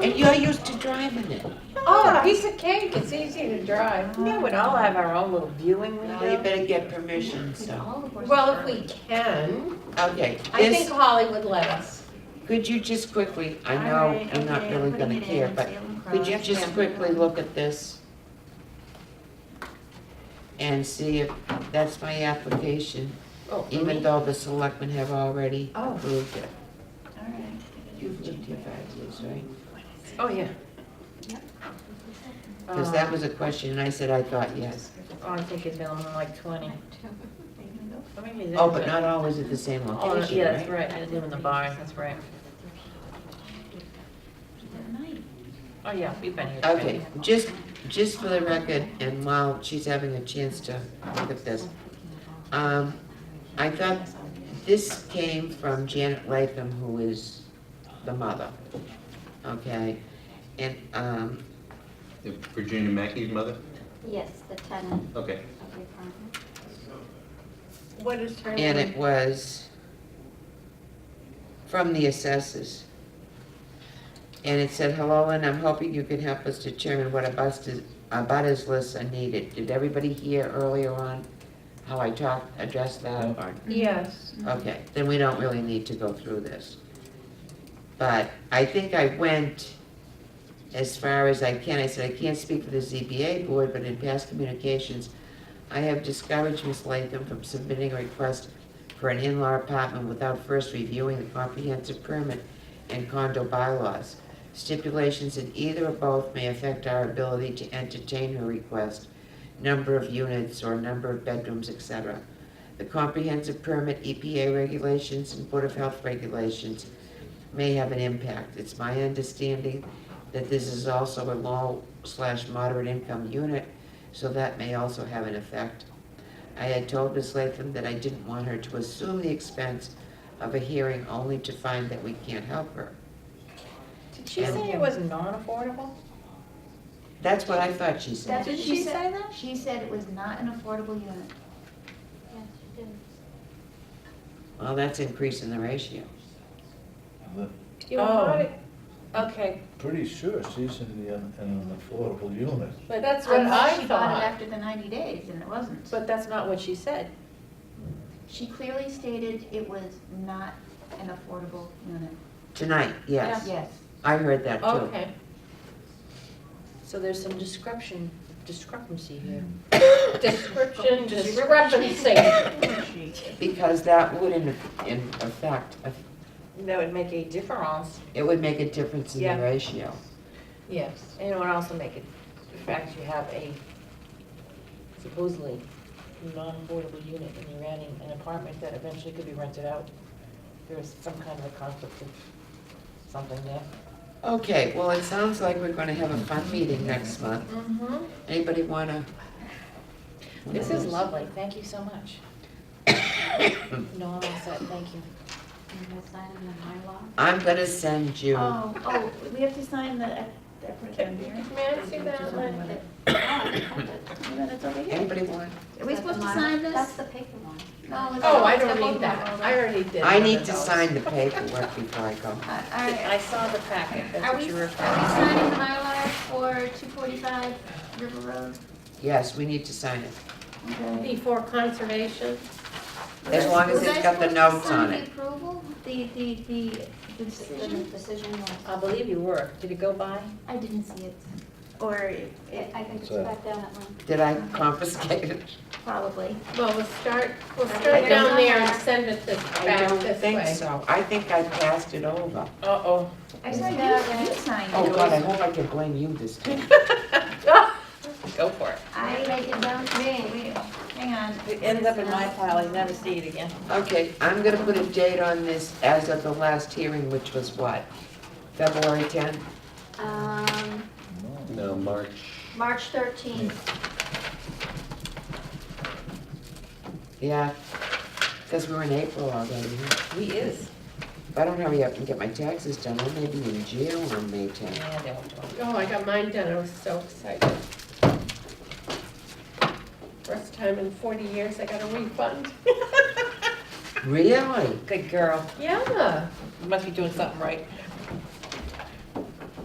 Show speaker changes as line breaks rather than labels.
And you're used to driving it.
Oh, a piece of cake, it's easy to drive. We would all have our own little viewing
Well, you
window.
better get permission, so.
Well, if we can,
Okay,
I think
this,
Holly would let us.
could you just quickly, I know I'm not really gonna care, but could you just quickly look at this? And see if, that's my application,
Oh,
even though the selectmen have already
Oh.
approved it.
All right.
You've lived here five years, right?
Oh, yeah.
Yep.
Because that
Uh,
was a question, and I said I thought yes.
Oh, Um, I think it's minimum like twenty. Or maybe it's
Oh, but
different.
not always at the same
Oh,
location,
yeah, that's
right?
right, I live in the barn, that's right. Oh, yeah, we've been here.
Okay, just, just for the record, and while she's having a chance to look at this, um, I thought this came from Janet Latham, who is the mother, okay? And, um,
Virginia Mackey's mother?
Yes, the tenant
Okay.
of the apartment.
What is her name?
and it was from the assessors. And it said, hello, and I'm hoping you can help us determine what abutters, abutters lists are needed. Did everybody hear earlier on how I talked, addressed that? Or-
Yes.
Okay, then we don't really need to go through this. But I think I went as far as I can. I said, I can't speak for the ZBA board, but in past communications, I have discouraged Ms. Latham from submitting a request for an in-law apartment without first reviewing the comprehensive permit and condo bylaws. Stipulations in either or both may affect our ability to entertain her request, number of units or number of bedrooms, etc. The comprehensive permit, EPA regulations, and Board of Health regulations may have an impact. It's my understanding that this is also a low slash moderate income unit, so that may also have an effect. I had told Ms. Latham that I didn't want her to assume the expense of a hearing only to find that we can't help her.
Did she say it was non-affordable?
That's what I thought she said.
That's what
Did she say
said-
that?
She said it was not an affordable unit. Yes, she did.
Well, that's increasing the ratio.
You
Oh.
bought it? Okay,
Pretty sure she's in the, un- in an affordable unit.
but that's what
Unless
I
She bought it
thought.
after the 90 days and it wasn't.
But that's not what she said.
She clearly stated it was not an affordable unit.
Tonight, yes.
Yes.
I heard that too.
Okay. So there's some description, discrepancy here. Description, discrepancy.
Because that would in, in effect,
That would make a difference.
it would make a difference in
Yeah.
the ratio.
Yes. And it would also make it, the fact you have a supposedly non-affordable unit and you're adding an apartment that eventually could be rented out. There's some kind of a conflict of something there.
Okay, well, it sounds like we're gonna have a fun meeting next month.
Mm-hmm.
Anybody wanna?
This is lovely, thank you so much. No, I'm all set, thank you.
And we'll sign it in Mylar.
Oh,
I'm gonna send you,
Oh, oh, we have to sign the, the proton hearing?
May I see that one?
Minutes over here.
anybody want?
Are we supposed to sign this?
That's the paper one.
No, it's-
Oh, I
it's
don't
the
need that, I already did.
I
one
need
of
to
those.
sign the paperwork before I go.
Uh, all right.
I saw the packet, that's
Are
what
we,
you
are
were
we
referring to.
signing the Mylar for two forty-five River Road?
Yes, we need to sign it,
Okay.
Before conservation?
as long as
Was I
it's got the
supposed to
notes
sign
on
the
it.
approval, the, the, the- the
The
decision?
decision was,
I believe you were, did it go by?
I didn't see it, or it-
I
it
I think it's
So-
back down that line.
Did I confiscate it?
probably.
Well, we'll start, we'll
I
start
don't-
down there and send it this,
I
back
don't
this
think
way.
so. I think I passed it over.
Uh-oh.
Actually, you, you signed
Oh, God, I
it.
hope I can blame you this time.
Go for it.
I,
Make it down to
wait,
me.
wait, hang on.
It ends up in my pile, you never see it again.
Okay, I'm gonna put a date on this as of the last hearing, which was what? February tenth?
Um,
No, March.
March thirteenth.
Yeah, because we're in April already.
We is.
If I don't hurry up and get my taxes done, I may be in jail on May tenth.
Yeah, they won't do it.
Oh, I got mine done, I was so excited. First time in forty years I got a refund.
Really?
Good girl,
Yeah,
you must be doing something right.